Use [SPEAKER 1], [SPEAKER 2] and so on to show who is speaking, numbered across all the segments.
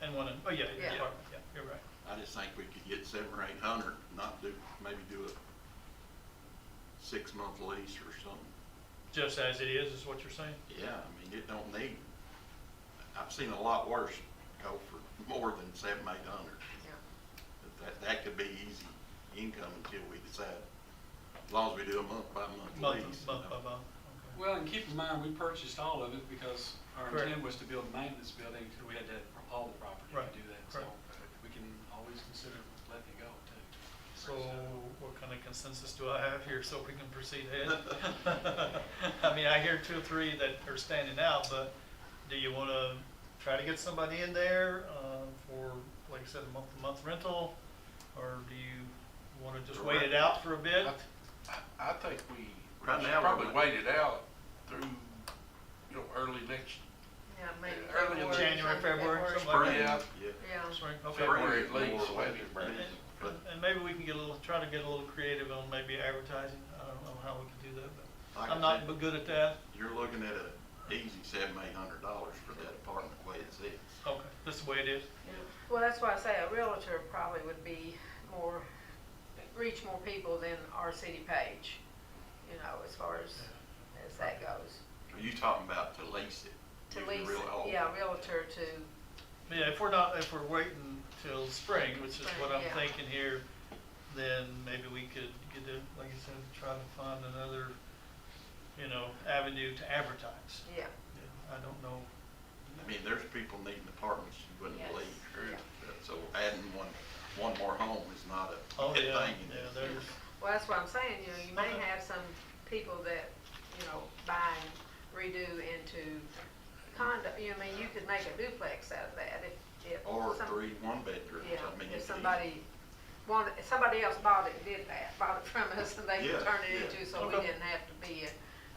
[SPEAKER 1] someone, and, oh, yeah, yeah,
[SPEAKER 2] Yeah.
[SPEAKER 1] yeah, you're right.
[SPEAKER 3] I just think we could get seven or eight hundred, not do, maybe do a six-month lease or something.
[SPEAKER 1] Just as it is, is what you're saying?
[SPEAKER 3] Yeah, I mean, it don't need, I've seen a lot worse go for more than seven, eight hundred.
[SPEAKER 2] yeah.
[SPEAKER 3] But That, that could be easy income until we decide, as long as we do a month by month
[SPEAKER 1] Month,
[SPEAKER 3] lease.
[SPEAKER 1] month by month, okay.
[SPEAKER 4] Well, and keep in mind, we purchased all of it because our
[SPEAKER 1] Correct.
[SPEAKER 4] intent was to build a maintenance building until we had to have all the property
[SPEAKER 1] Right,
[SPEAKER 4] to do that. So
[SPEAKER 1] correct.
[SPEAKER 4] we can always consider letting it go too.
[SPEAKER 1] So what kind of consensus do I have here so we can proceed ahead? I mean, I hear two or three that are standing out, but do you want to try to get somebody in there uh, for, like I said, a month-to-month rental? Or do you want to just wait it out for a bit?
[SPEAKER 5] I, I think we
[SPEAKER 3] Right
[SPEAKER 5] should
[SPEAKER 3] now, we're
[SPEAKER 5] probably
[SPEAKER 3] not.
[SPEAKER 5] wait it out through, you know, early next,
[SPEAKER 2] Yeah, maybe
[SPEAKER 5] Yeah, early in
[SPEAKER 2] February,
[SPEAKER 1] January,
[SPEAKER 2] something,
[SPEAKER 1] February, something like
[SPEAKER 5] spring, yeah.
[SPEAKER 3] Yeah.
[SPEAKER 2] Yeah.
[SPEAKER 1] Sorry, okay.
[SPEAKER 3] February
[SPEAKER 5] February at
[SPEAKER 3] more
[SPEAKER 5] least,
[SPEAKER 3] likely,
[SPEAKER 5] maybe.
[SPEAKER 3] but-
[SPEAKER 1] And-
[SPEAKER 3] but-
[SPEAKER 1] And maybe we can get a little, try to get a little creative on maybe advertising. I don't know how we can do that,
[SPEAKER 3] Like
[SPEAKER 1] but
[SPEAKER 3] I
[SPEAKER 1] I'm not
[SPEAKER 3] said-
[SPEAKER 1] good at that.
[SPEAKER 3] You're looking at a easy seven, eight hundred dollars for that apartment the way it sits.
[SPEAKER 1] Okay, that's the way it is.
[SPEAKER 2] Yeah. Well, that's why I say a realtor probably would be more, reach more people than our city page, you know, as far as, as that goes.
[SPEAKER 3] Are you talking about to lease it?
[SPEAKER 2] To
[SPEAKER 3] You
[SPEAKER 2] lease,
[SPEAKER 3] really- oh,
[SPEAKER 2] yeah, realtor to,
[SPEAKER 1] Yeah, if we're not, if we're waiting till spring, which is what I'm
[SPEAKER 2] Spring, yeah.
[SPEAKER 1] thinking here, then maybe we could get to, like you said, try to find another, you know, avenue to advertise.
[SPEAKER 2] yeah.
[SPEAKER 1] I don't know.
[SPEAKER 3] I mean, there's people needing apartments you wouldn't
[SPEAKER 2] Yes.
[SPEAKER 3] believe.
[SPEAKER 2] Yeah.
[SPEAKER 3] So adding one, one more home is not a
[SPEAKER 1] Oh,
[SPEAKER 3] good
[SPEAKER 1] yeah,
[SPEAKER 3] thing.
[SPEAKER 1] yeah, there's,
[SPEAKER 2] Well, that's what I'm saying, you know, you may
[SPEAKER 1] Okay.
[SPEAKER 2] have some people that, you know, buy and redo into condo, you know, I mean, you could make a duplex out of that if, if.
[SPEAKER 3] Or
[SPEAKER 2] some-
[SPEAKER 3] three one bedrooms,
[SPEAKER 2] Yeah,
[SPEAKER 3] I mean.
[SPEAKER 2] if
[SPEAKER 3] it's
[SPEAKER 2] somebody wanted, if somebody else bought it, and did that, bought it from us and they could
[SPEAKER 3] Yeah,
[SPEAKER 2] turn it
[SPEAKER 3] yeah.
[SPEAKER 2] into, so we
[SPEAKER 1] Okay.
[SPEAKER 2] didn't have to be a,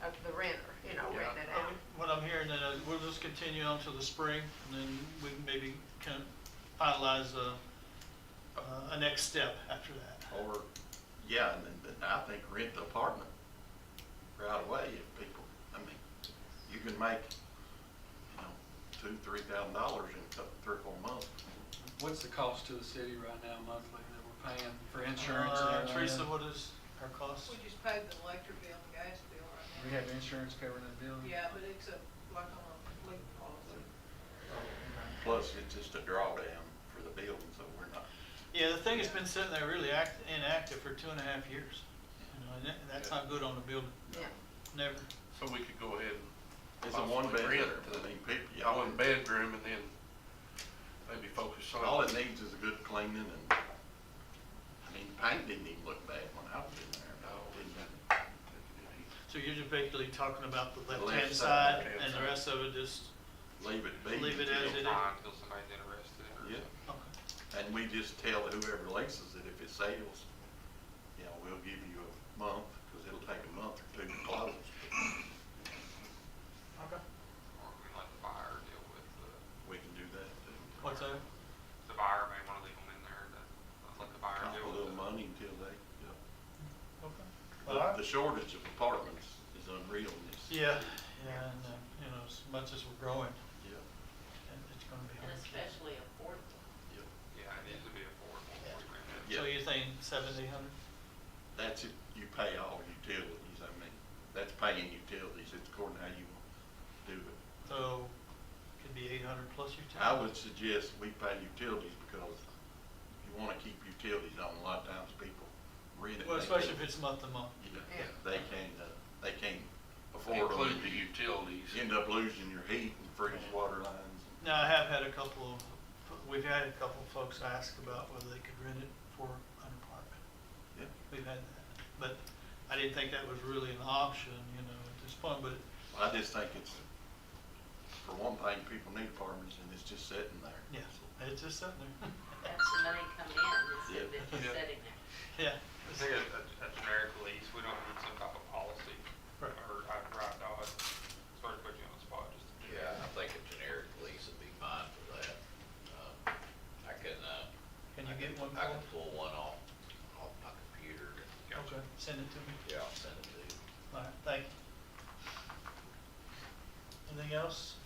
[SPEAKER 2] a, the renter, you know,
[SPEAKER 3] Yeah.
[SPEAKER 2] rent it out.
[SPEAKER 1] what I'm hearing, then, is we'll just continue on to the spring, and then we can maybe can finalize a, a- a next step after
[SPEAKER 3] easy.
[SPEAKER 1] that.
[SPEAKER 3] Or, yeah, and then, then I think rent the apartment right away if people, I mean, you can make, you know, two, three thousand dollars in a couple, three, or four months.
[SPEAKER 4] What's the cost to the city right now monthly that we're paying for insurance? and
[SPEAKER 1] Uh,
[SPEAKER 4] everything?
[SPEAKER 1] Teresa, what is our cost?
[SPEAKER 6] We just paid the electric bill and gas bill
[SPEAKER 4] We
[SPEAKER 6] right
[SPEAKER 4] have insurance covering the
[SPEAKER 6] now.
[SPEAKER 3] Mm-hmm.
[SPEAKER 4] building?
[SPEAKER 6] Yeah, but it's a, like on a complete policy.
[SPEAKER 3] Plus, it's just a drawdown for the building, so we're not,
[SPEAKER 1] Yeah, the thing has been sitting there really act, inactive for two and a half years. You know, and that, that's not good on the building,
[SPEAKER 2] Yeah,
[SPEAKER 1] never.
[SPEAKER 5] so we could go ahead
[SPEAKER 3] it's a one
[SPEAKER 5] Possibly
[SPEAKER 3] bedroom.
[SPEAKER 5] rent to-
[SPEAKER 3] I mean, people,
[SPEAKER 5] and,
[SPEAKER 3] y'all
[SPEAKER 5] one
[SPEAKER 3] wouldn't
[SPEAKER 5] bedroom and then maybe focus on.
[SPEAKER 3] All it needs is a good cleaning and, I mean, the paint didn't even look bad when I was in there.
[SPEAKER 5] No,
[SPEAKER 3] it didn't.
[SPEAKER 1] So you're just basically talking about the
[SPEAKER 3] The
[SPEAKER 1] left-hand
[SPEAKER 3] left side,
[SPEAKER 1] side
[SPEAKER 5] left-hand
[SPEAKER 1] and the
[SPEAKER 5] side.
[SPEAKER 1] rest of it is,
[SPEAKER 3] Leave it be.
[SPEAKER 1] Leave it
[SPEAKER 3] until-
[SPEAKER 1] as it
[SPEAKER 7] Fine, until somebody's interested in it or
[SPEAKER 3] Yeah,
[SPEAKER 7] something.
[SPEAKER 1] okay,
[SPEAKER 3] and we just tell whoever leases it, if it sales, you know, we'll give you a month, because it'll take a month or two to close.
[SPEAKER 7] Or we let the buyer deal with the,
[SPEAKER 3] We can do that,
[SPEAKER 1] what's that?
[SPEAKER 7] the buyer may wanna leave them in there, that, let the buyer
[SPEAKER 3] count
[SPEAKER 7] deal
[SPEAKER 3] a
[SPEAKER 7] with
[SPEAKER 3] little
[SPEAKER 7] it.
[SPEAKER 3] money until they, you
[SPEAKER 1] Okay.
[SPEAKER 3] know.
[SPEAKER 1] Well,
[SPEAKER 3] The- The shortage of apartments is unreal in this.
[SPEAKER 1] Yeah, yeah, and, uh, you know, as much as we're growing,
[SPEAKER 3] Yeah,
[SPEAKER 1] it- it's gonna be
[SPEAKER 8] And
[SPEAKER 1] hard.
[SPEAKER 8] especially affordable.
[SPEAKER 3] yeah.
[SPEAKER 7] Yeah, it needs to be affordable. before we rent it.
[SPEAKER 3] Yeah.
[SPEAKER 1] So you're thinking seventy hundred?
[SPEAKER 3] That's it, you pay all utilities, I mean, that's paying utilities, it's according to how you want to do it.
[SPEAKER 1] So could be eight hundred plus your tax?
[SPEAKER 3] I would suggest we pay utilities because you wanna keep utilities on, a lot of times people rent it.
[SPEAKER 1] Well,
[SPEAKER 3] they
[SPEAKER 1] especially if
[SPEAKER 3] can't-
[SPEAKER 1] it's month-to-month.
[SPEAKER 3] Yeah,
[SPEAKER 2] Yeah.
[SPEAKER 3] They can't, uh, they can't afford them.
[SPEAKER 5] Include the utilities.
[SPEAKER 3] You End up losing your heat and freeze water lines.
[SPEAKER 1] Now, I have had a couple of, we've had a couple of folks ask about whether they could rent it for an apartment.
[SPEAKER 3] Yeah.
[SPEAKER 1] We've had that, but I didn't think that was really an option, you know, at this point, but
[SPEAKER 3] I just think it's, for one thing, people need apartments and it's just sitting there.
[SPEAKER 1] yeah, it's just sitting there.
[SPEAKER 8] That's the money come in, it's
[SPEAKER 3] Yeah.
[SPEAKER 8] that it's
[SPEAKER 5] Yeah.
[SPEAKER 8] sitting there.
[SPEAKER 1] Yeah.
[SPEAKER 7] I think a, a a generic lease, we don't need some type of policy,
[SPEAKER 1] Right.
[SPEAKER 7] or, I'd right now, it's sort of put you on the spot, just to do
[SPEAKER 9] Yeah, I think a generic lease would be fine for that. Um, I can, uh.
[SPEAKER 1] Can you
[SPEAKER 9] I
[SPEAKER 1] get one
[SPEAKER 9] I
[SPEAKER 1] more?
[SPEAKER 9] can pull one off, off my computer.
[SPEAKER 1] Okay, send it to me.
[SPEAKER 9] Yeah, I'll send it to you.
[SPEAKER 1] All right, thank you. Anything else?